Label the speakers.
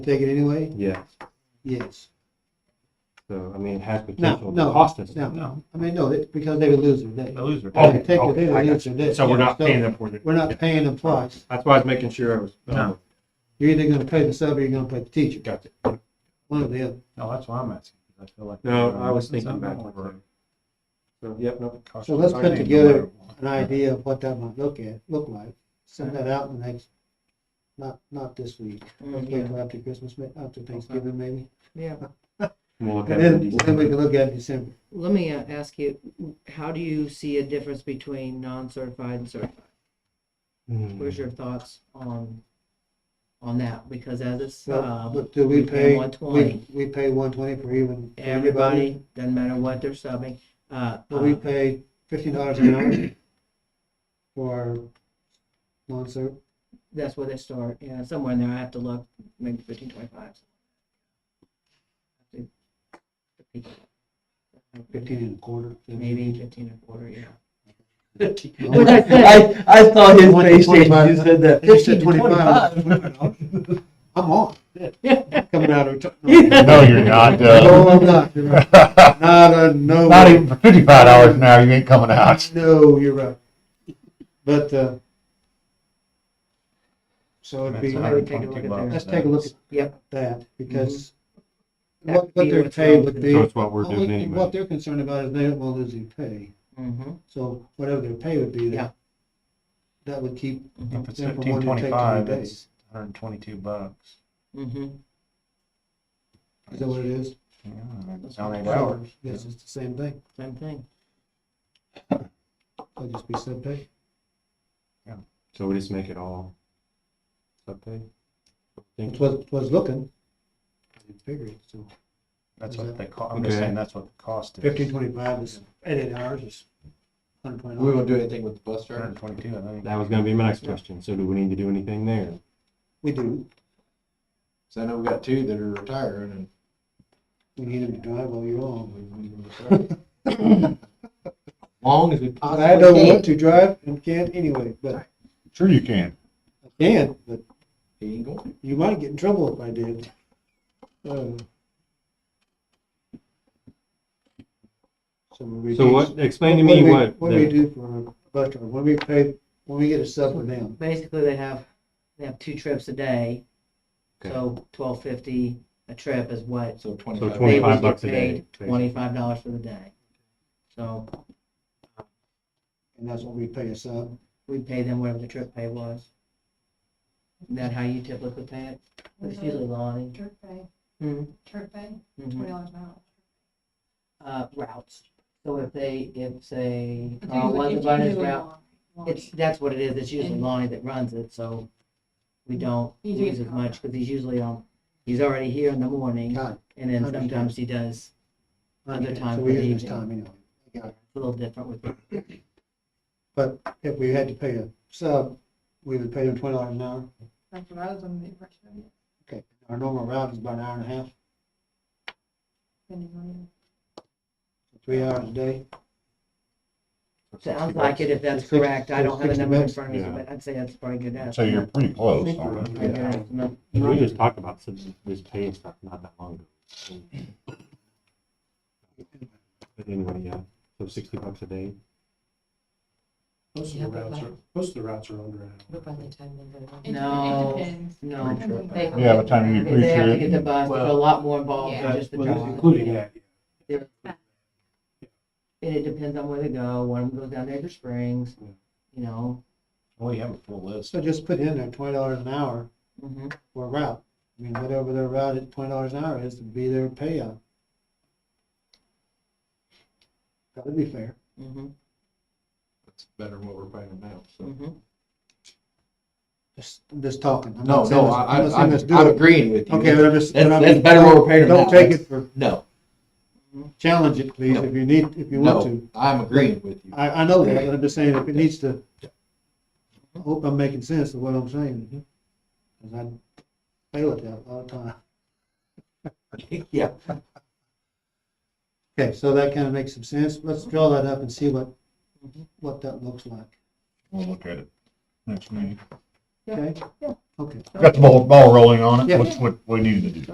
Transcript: Speaker 1: Take it anyway?
Speaker 2: Yeah,
Speaker 1: Yes.
Speaker 2: so I mean, it has
Speaker 1: No,
Speaker 2: potential to
Speaker 1: no.
Speaker 2: cost us. Oh,
Speaker 1: No, I mean, no, it- because they would lose their day.
Speaker 2: A loser.
Speaker 1: They would Take it, they would lose their day.
Speaker 2: So we're not
Speaker 1: Yeah,
Speaker 2: paying them for it.
Speaker 1: We're not paying them twice.
Speaker 2: That's why I was making sure I was. uh,
Speaker 3: No.
Speaker 1: You're either gonna pay the sub or you're gonna pay the teacher,
Speaker 2: Gotcha.
Speaker 1: one or the other.
Speaker 3: No, that's why I'm asking. 'cause I feel like. uh,
Speaker 2: No, I was thinking about
Speaker 3: Something
Speaker 2: it.
Speaker 3: like
Speaker 2: So, yep, no.
Speaker 3: that.
Speaker 1: So let's
Speaker 3: I think
Speaker 1: put
Speaker 3: no
Speaker 1: together
Speaker 3: matter what.
Speaker 1: An idea of what that might look at, look like. Send that out in the next, not, not this week,
Speaker 4: Oh, Yeah,
Speaker 1: wait till after Christmas, ma- after Thanksgiving maybe.
Speaker 4: yeah.
Speaker 2: We'll look at
Speaker 1: And
Speaker 2: it
Speaker 1: then,
Speaker 2: in
Speaker 1: then we
Speaker 2: December.
Speaker 1: can look at it in December.
Speaker 4: Let me uh, ask you, how do you see a difference between non-certified and certified?
Speaker 2: Hmm.
Speaker 4: Where's your thoughts on, on that? Because as it's,
Speaker 1: So,
Speaker 4: uh,
Speaker 1: but do we
Speaker 4: we pay
Speaker 1: pay, we,
Speaker 4: 120.
Speaker 1: we pay one twenty for even, for everybody?
Speaker 4: everybody, doesn't matter what they're subbing, uh,
Speaker 1: But we
Speaker 4: uh,
Speaker 1: pay fifteen dollars an hour for non-serve.
Speaker 4: that's where they start, yeah, somewhere in there, I have to look, maybe fifteen twenty-five.
Speaker 1: Fifteen and a quarter.
Speaker 4: Maybe fifteen and a quarter, yeah.
Speaker 1: What
Speaker 4: I said.
Speaker 5: I, I saw his
Speaker 1: Twenty-
Speaker 5: face change.
Speaker 1: twenty-five.
Speaker 5: You said that
Speaker 1: You said
Speaker 5: fifteen to twenty-five.
Speaker 1: I'm on. Coming out of.
Speaker 6: No, you're not.
Speaker 1: No,
Speaker 6: Uh,
Speaker 1: I'm not. You're right. Not a, no.
Speaker 6: not even for fifty-five dollars an hour, you ain't coming out.
Speaker 1: No, you're right. But, uh, so it'd be,
Speaker 4: That's I would take a look at
Speaker 3: $122
Speaker 4: theirs.
Speaker 1: let's take a look at
Speaker 4: Yep,
Speaker 1: that because
Speaker 4: That
Speaker 1: what,
Speaker 4: would
Speaker 1: what
Speaker 4: be
Speaker 1: their
Speaker 4: what's
Speaker 1: pay
Speaker 4: wrong.
Speaker 1: would be.
Speaker 2: So it's what we're doing
Speaker 1: Only- What
Speaker 2: anyway.
Speaker 1: they're concerned about is they don't want to lose any pay.
Speaker 4: mm-hmm,
Speaker 1: So whatever their pay would be,
Speaker 4: Yeah.
Speaker 1: that, that would keep
Speaker 4: mm-hmm,
Speaker 3: If it's
Speaker 1: them from
Speaker 3: fifteen
Speaker 1: wanting to take
Speaker 3: twenty-five,
Speaker 1: any
Speaker 3: it's hundred and twenty-two bucks.
Speaker 4: mm-hmm.
Speaker 1: Is that what it is?
Speaker 3: Yeah,
Speaker 4: That's
Speaker 3: that's on eight
Speaker 4: what
Speaker 3: hours.
Speaker 1: Yes, it's the same thing.
Speaker 4: Same thing.
Speaker 1: They'll just be sub pay.
Speaker 2: So we just make it all. Okay.
Speaker 1: It was, was looking. I didn't figure it, so
Speaker 3: That's
Speaker 1: Is
Speaker 3: what
Speaker 1: it?
Speaker 3: they cost. I'm just
Speaker 2: Okay.
Speaker 3: saying that's what the cost is.
Speaker 1: fifteen twenty-five is, at eight hours is hundred twenty
Speaker 5: We
Speaker 1: dollars.
Speaker 5: won't do anything with the bus
Speaker 3: Hundred
Speaker 5: driver.
Speaker 3: and twenty-two, I think.
Speaker 2: That was gonna be my next question. So do we need to do anything there?
Speaker 1: We do,
Speaker 5: So I know we got two that are retiring and.
Speaker 1: we need them to drive all year long.
Speaker 5: Long as we
Speaker 1: I
Speaker 5: possibly
Speaker 1: don't
Speaker 5: can.
Speaker 1: want to drive and can't anyway, but I
Speaker 6: Sure you can.
Speaker 1: can, but
Speaker 5: He ain't going.
Speaker 1: you might get in trouble if I did. Uh, So we
Speaker 2: So
Speaker 1: do-
Speaker 2: what, explain to
Speaker 1: What do
Speaker 2: me
Speaker 1: we-
Speaker 2: what,
Speaker 1: What do we
Speaker 2: the-
Speaker 1: do for our bus driver, when we pay, when we get a sub for them,
Speaker 4: basically they have, they have two trips a day.
Speaker 2: Okay.
Speaker 4: So twelve fifty a trip is what
Speaker 5: So
Speaker 2: so
Speaker 5: twenty-five.
Speaker 4: they
Speaker 2: twenty-five
Speaker 4: would get
Speaker 2: bucks a day.
Speaker 4: paid, twenty-five dollars for the day. So
Speaker 1: and that's what we pay a sub.
Speaker 4: we pay them whatever the trip pay was. Isn't that how you typically pay it? It's usually Lonnie.
Speaker 7: Turf pay,
Speaker 4: Hmm,
Speaker 7: turf pay,
Speaker 4: mhm.
Speaker 7: twenty dollars an hour.
Speaker 4: Uh, routes. So if they, if say,
Speaker 7: It's
Speaker 4: Carl
Speaker 7: usually-
Speaker 4: wasn't
Speaker 7: it's
Speaker 4: running his
Speaker 7: usually
Speaker 4: route,
Speaker 7: long, long.
Speaker 4: it's, that's what it is. It's usually Lonnie that runs it, so we don't
Speaker 7: You do
Speaker 4: use as
Speaker 7: get caught.
Speaker 4: much because he's usually on, he's already here in the morning
Speaker 1: Time.
Speaker 4: and then
Speaker 1: Understand.
Speaker 4: sometimes he does Other time
Speaker 1: So
Speaker 4: for
Speaker 1: we
Speaker 4: the
Speaker 1: use this
Speaker 4: evening.
Speaker 1: time anyway. Got it.
Speaker 4: a little different with it.
Speaker 1: But if we had to pay a sub, we would pay them twenty dollars an hour,
Speaker 7: That's what I was under the impression of it,
Speaker 1: okay, our normal route is about an hour and a half,
Speaker 7: depending on
Speaker 1: three hours a day.
Speaker 4: Sounds like it, if that's
Speaker 1: Sixty-
Speaker 4: correct. I don't have a
Speaker 1: sixty
Speaker 4: number in
Speaker 1: bucks.
Speaker 4: front of me,
Speaker 2: Yeah.
Speaker 4: but I'd say that's probably a good
Speaker 1: uh,
Speaker 6: So you're
Speaker 4: estimate.
Speaker 6: pretty close.
Speaker 4: A
Speaker 6: aren't you?
Speaker 4: good estimate.
Speaker 2: We just talked about some- this pay and stuff not that long ago. But anyway, yeah, so sixty bucks a day.
Speaker 8: Most of
Speaker 4: Yeah,
Speaker 8: the
Speaker 4: but
Speaker 8: routes
Speaker 4: like-
Speaker 8: are, most of the routes are under an hour. But by the time they go
Speaker 7: it. It-
Speaker 4: No.
Speaker 7: It depends.
Speaker 4: No.
Speaker 7: They-
Speaker 6: Yeah, by the time you
Speaker 4: They have to
Speaker 6: appreciate
Speaker 4: get the
Speaker 6: it.
Speaker 4: bus, there's a lot more involved than
Speaker 8: That-
Speaker 4: just the
Speaker 8: well,
Speaker 4: drive.
Speaker 8: Including that,
Speaker 4: And it depends on where they go, one of them goes down there to Springs, you know.
Speaker 3: Well, you have a full list.
Speaker 1: So just put in there twenty dollars an hour
Speaker 4: Mhm.
Speaker 1: for a route, I mean, whatever their route at twenty dollars an hour is to be their payout. That would be fair,
Speaker 4: Mhm.
Speaker 5: That's better than what we're paying them now, so.
Speaker 4: Mhm.
Speaker 1: just, I'm just talking. I'm
Speaker 5: No,
Speaker 1: not saying
Speaker 5: no,
Speaker 1: let's-
Speaker 5: I,
Speaker 1: I'm not
Speaker 5: I,
Speaker 1: saying
Speaker 5: I'm,
Speaker 1: let's do
Speaker 5: I'm
Speaker 1: it.
Speaker 5: agreeing with you.
Speaker 1: Okay, but I'm just.
Speaker 5: That's,
Speaker 1: but I'm
Speaker 5: that's
Speaker 1: just-
Speaker 5: better than what we're paying them now.
Speaker 1: Don't take it for,
Speaker 5: No,
Speaker 1: challenge it, please, if you need, if you want to.
Speaker 5: no, I'm agreeing with you.
Speaker 1: I, I know that, but I'm just saying, if it needs to, I hope I'm making sense of what I'm saying.
Speaker 4: Mm-hmm.
Speaker 1: Cause I fail at that a lot of time.
Speaker 5: Yeah.
Speaker 1: Okay, so that kind of makes some sense. Let's draw that up and see what,
Speaker 4: Mhm.
Speaker 1: what that looks like.
Speaker 6: We'll look at it next meeting.
Speaker 4: Yeah.
Speaker 1: okay?
Speaker 4: Yeah.
Speaker 1: Okay.
Speaker 6: Got the ball, ball rolling on it, which, what we needed to do.